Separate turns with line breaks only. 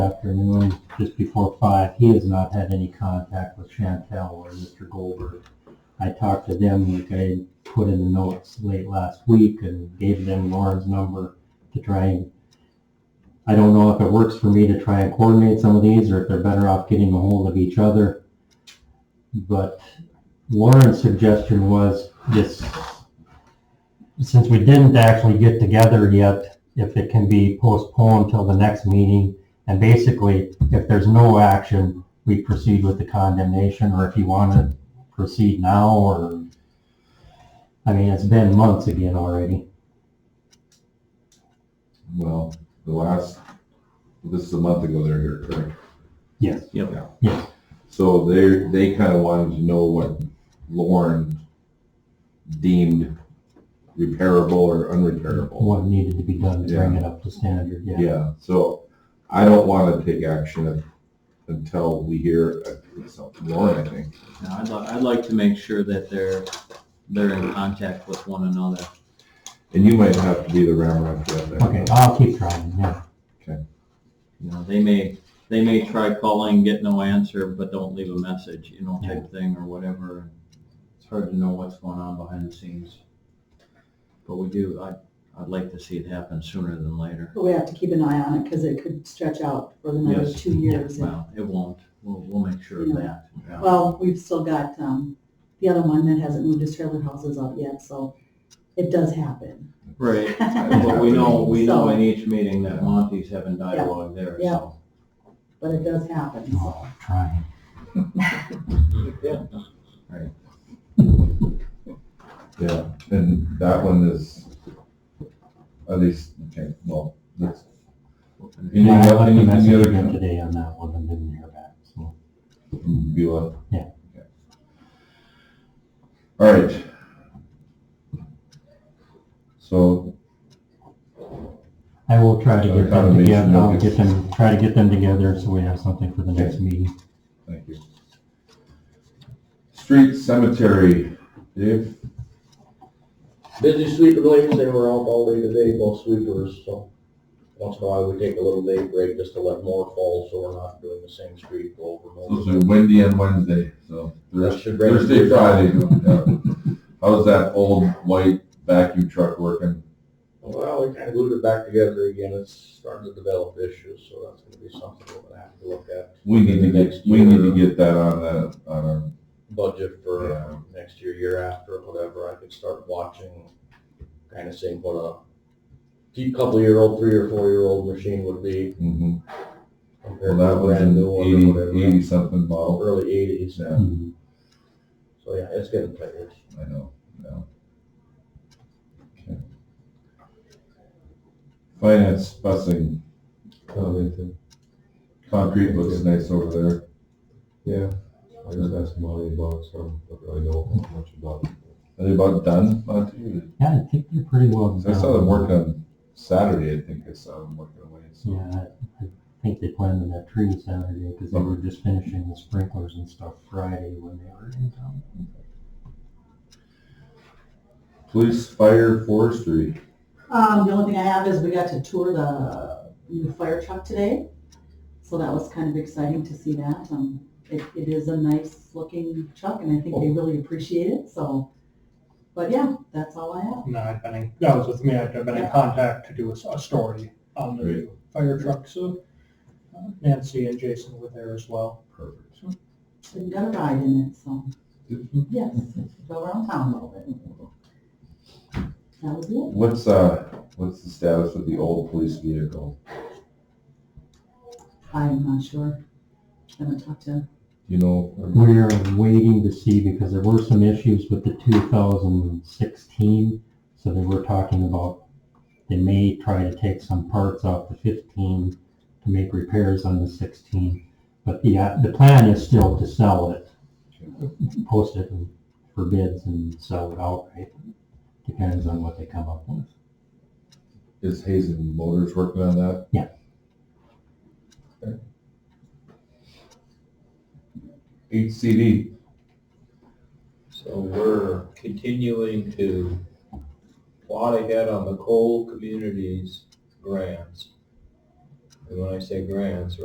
afternoon, just before five, he has not had any contact with Chantel or Mr. Goldberg. I talked to them, like I put in the notes late last week and gave them Lauren's number to try and, I don't know if it works for me to try and coordinate some of these or if they're better off getting a hold of each other. But Lauren's suggestion was this, since we didn't actually get together yet, if it can be postponed till the next meeting. And basically, if there's no action, we proceed with the condemnation, or if you want to proceed now, or, I mean, it's been months again already.
Well, the last, this is a month ago they're here, correct?
Yes.
Yep.
Yeah.
So they, they kind of wanted to know what Lauren deemed repairable or unrepairable.
What needed to be done to bring it up to standard, yeah.
Yeah, so I don't want to take action until we hear uh, so Lauren, I think.
Now, I'd, li- I'd like to make sure that they're, they're in contact with one another.
And you might have to be the ramrod for that.
Okay, I'll keep trying, yeah.
You know, they may, they may try calling, get no answer, but don't leave a message, you know, type thing or whatever. It's hard to know what's going on behind the scenes. But we do, I, I'd like to see it happen sooner than later.
But we have to keep an eye on it because it could stretch out for another
Yes.
two years. And-
Well, it won't. We'll, we'll make sure of that. yeah.
Well, we've still got, um, the other one that hasn't moved his trailer houses out yet, so it does happen.
Right,
Yeah.
but we know, we know
So-
in each meeting that Monty's having dialogue there,
Yeah.
so.
But it does happen, so.
Oh, trying.
Yeah.
Yeah, and that one is, at least, okay, well, that's. Any,
Yeah, I left a
any, any
message
other
again today on that one and didn't hear back, so.
Beulah?
Yeah.
Okay. All right. So,
I will try to
Other
get them
condemnation
together, I'll
notice.
get them, try to get them together so we have something for the next meeting.
thank you. Street cemetery, Dave,
Busy sweeping ladies, they were out all day today, both sweepers, so once in a while we take a little day break just to let more fall, so we're not doing the same street go over
those
and
are
over.
windy on Wednesday, so
That
Thurs-
should bring-
Thursday, Friday. yeah. How's that old white vacuum truck working?
Well, we kind of glued it back together again, it's starting to develop issues, so that's gonna be something we're gonna have to look at.
We need to get,
Next
we need to
year.
get that on a, on a
Budget for um,
Yeah.
next year, year after, whatever, I could start watching, kind of seeing what a deep couple-year-old, three or four-year-old machine would be
Mm-hmm. Well,
compared to
that
a
was
brand new one or
an
whatever.
80, 80 something model.
Early eighties,
Yeah.
Mhm.
so yeah, it's getting tight.
I know, no. Okay. Finance busing. Concrete looks nice over there. Yeah, I just asked Monty about some, don't really know much about. Are they about done, Monty?
Yeah, I think they're pretty well
Because
done.
I saw them work on Saturday, I think I saw them working away, so.
Yeah, I- I think they planted that tree Saturday because they were just finishing the sprinklers and stuff Friday when they were in town.
Police, fire, forestry.
Um, the only thing I have is we got to tour the new fire truck today, so that was kind of exciting to see that. Um, it, it is a nice looking truck and I think they really appreciate it, so, but yeah, that's all I have.
No, I've been in, that was with me, I've been in contact to do a, s- a story on the
Great.
fire truck, so uh, Nancy and Jason were there as well.
Perfect.
And got a ride in it, so,
Mm-hmm.
yes, go around town a little bit. That was it.
What's, uh, what's the status of the old police vehicle?
I'm not sure. I haven't talked to,
You know,
We're waiting to see because there were some issues with the 2016, so they were talking about they may try to take some parts off the 15 to make repairs on the 16. But the, uh, the plan is still to sell it, post it for bids and sell it outright. Depends on what they come up with.
Is Hazen Motors working on that?
Yeah.
Okay. HCD,
So we're continuing to plot ahead on the coal communities grants. And when I say grants,